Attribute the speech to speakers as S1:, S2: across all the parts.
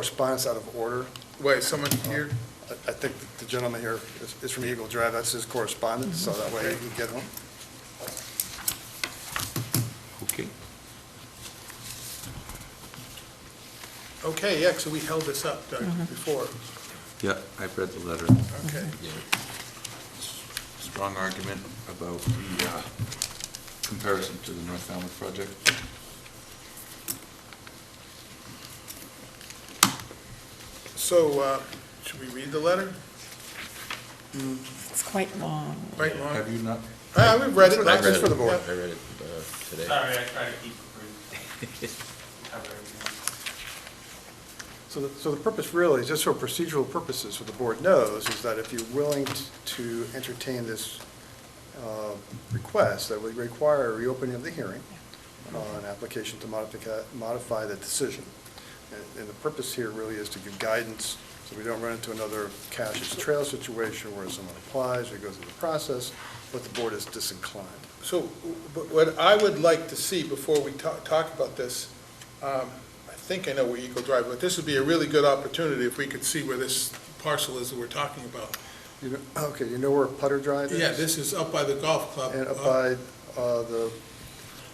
S1: correspondence out of order.
S2: Wait, someone here?
S1: I I think the gentleman here is- is from Eagle Drive, that's his correspondence, so that way he can get them.
S3: Okay.
S2: Okay, yeah, so we held this up, Doug,
S1: Mm-hmm.
S2: before.
S3: Yeah, I've read the letter.
S2: Okay.
S3: Strong argument about the uh, comparison to the North Falmouth project.
S2: So, uh, should we read the letter?
S4: It's quite long.
S2: Right, Lon?
S3: Have you not?
S2: Ah, we've read it,
S1: I
S2: that's
S1: read
S2: just
S1: it.
S2: for the board.
S1: Yep.
S5: I read it uh, today.
S6: Sorry, I try to keep it brief. Cover everything.
S1: So the, so the purpose really, just for procedural purposes, so the board knows, is that if you're willing t- to entertain this uh, request, that would require a reopening of the hearing on application to modifica- modify the decision. And- And the purpose here really is to give guidance, so we don't run into another cash as trail situation where someone applies or goes through the process, but the board is disinclined.
S2: So, but what I would like to see before we talk, talk about this, um, I think I know where Eagle Drive, but this would be a really good opportunity if we could see where this parcel is that we're talking about.
S1: You know, okay, you know where Putter Drive is?
S2: Yeah, this is up by the golf club.
S1: And up
S2: uh,
S1: by uh, the,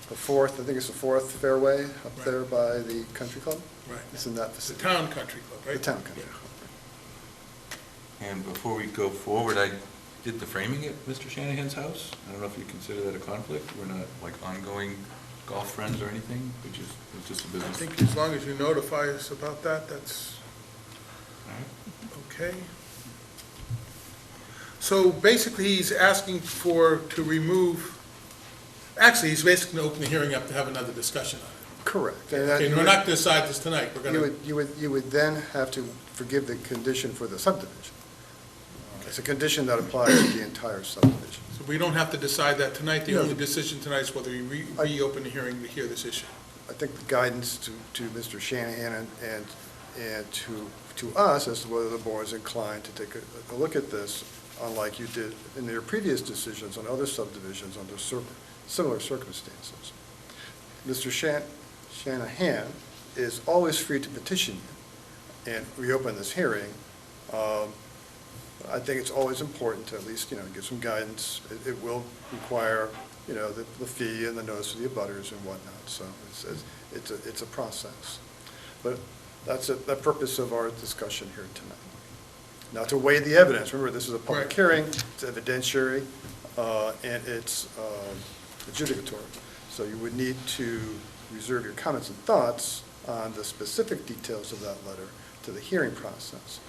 S1: the fourth, I think it's the fourth fairway, up
S2: Right.
S1: there by the country club?
S2: Right,
S1: It's in that
S2: it's the
S1: vicinity.
S2: town country club, right?
S1: The town country
S2: Yeah.
S1: club.
S3: And before we go forward, I did the framing at Mr. Shanahan's house. I don't know if you consider that a conflict. We're not like ongoing golf friends or anything, which is, it's just a
S2: I
S3: business.
S2: think as long as you notify us about that, that's
S3: All right.
S2: okay. So basically, he's asking for, to remove, actually, he's basically opening the hearing up to have another discussion on it.
S1: Correct. And that-
S2: Okay, we're not gonna decide this tonight, we're
S1: You
S2: gonna,
S1: would, you would, you would then have to forgive the condition for the subdivision. It's a condition that applies to the entire subdivision.
S2: so we don't have to decide that tonight, the
S1: No.
S2: only decision tonight is whether we re-
S1: I-
S2: reopen the hearing to hear this issue.
S1: I think the guidance to, to Mr. Shanahan and, and and to, to us as to whether the board is inclined to take a, a look at this, unlike you did in your previous decisions on other subdivisions under cir- similar circumstances. Mr. Shan- Shanahan is always free to petition you and reopen this hearing. Um, I think it's always important to at least, you know, give some guidance. It, it will require, you know, the, the fee and the notice to the abutters and whatnot, so it's, it's- it's, a it's a process. But that's the, the purpose of our discussion here tonight. Not to weigh the evidence, remember, this is a public
S2: Right.
S1: hearing, it's evidentiary, uh, and it's um, adjudicatory. So you would need to reserve your comments and thoughts on the specific details of that letter to the hearing process.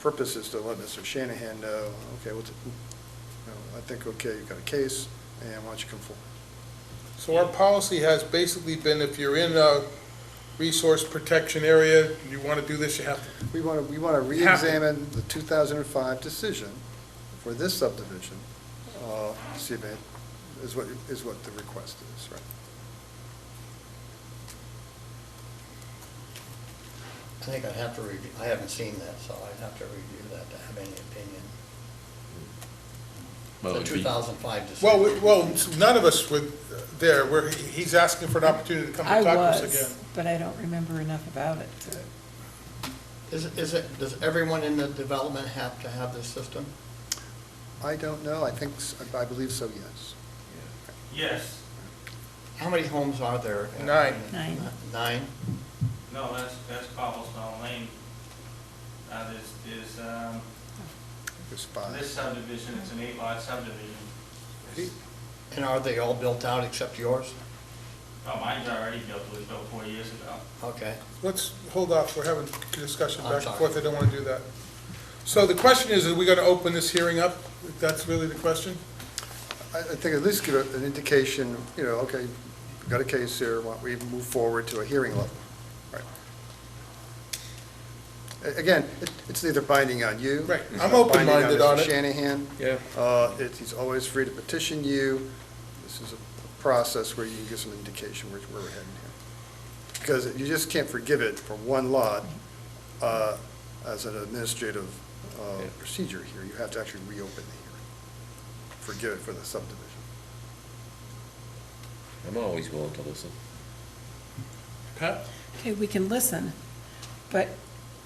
S1: Purpose is to let Mr. Shanahan know, okay, what's, you know, I think, okay, you've got a case, and why don't you come forward?
S2: So our policy has basically been if you're in a resource protection area, and you wanna do this, you have to,
S1: We want to, we want to reexamine the 2005 decision for this subdivision, uh, see if it, is what, is what the request is, right?
S7: I think I'd have to review, I haven't seen that, so I'd have to review that to have any opinion.
S5: Well,
S7: The
S5: it'd be-
S7: 2005 decision.
S2: well, we- well, none of us were there, we're, he's asking for an opportunity to come
S4: I
S2: and talk to us again.
S4: was, but I don't remember enough about it. to-
S7: Is, it- is it, does everyone in the development have to have this system?
S1: I don't know, I think, s- I believe so, yes.
S6: Yes,
S7: How many homes are there?
S2: Nine.
S4: Nine.
S7: Nine?
S6: no, that's, that's cobblestone lane. Uh, there's, there's, um,
S1: There's five.
S6: this subdivision, it's an eight lot subdivision. It's-
S7: And are they all built out except yours?
S6: Oh, mine's already built, it was built four years ago.
S7: Okay.
S2: Let's hold off, we're having a discussion
S7: I'm
S2: back and
S7: sorry.
S2: forth, I don't want to do that. So the question is, are we going to open this hearing up? That's really the question?
S1: I, I think at least give a- an indication, you know, okay, we've got a case here, why don't we move forward to a hearing level? Right. A- Again, it- it's neither binding on you.
S2: Right.
S1: it's
S2: I'm
S1: not binding
S2: open-minded on
S1: Mr.
S2: it.
S1: Shanahan.
S2: Yeah.
S1: Uh, it's, he's always free to petition you. This is a process where you can get some indication where, where we're heading here. Because you just can't forgive it for one lot, uh, as an administrative, uh, procedure here. You have to actually reopen the hearing. Forgive it for the subdivision.
S5: I'm always willing to listen.
S2: Pat?
S4: Okay, we can listen, but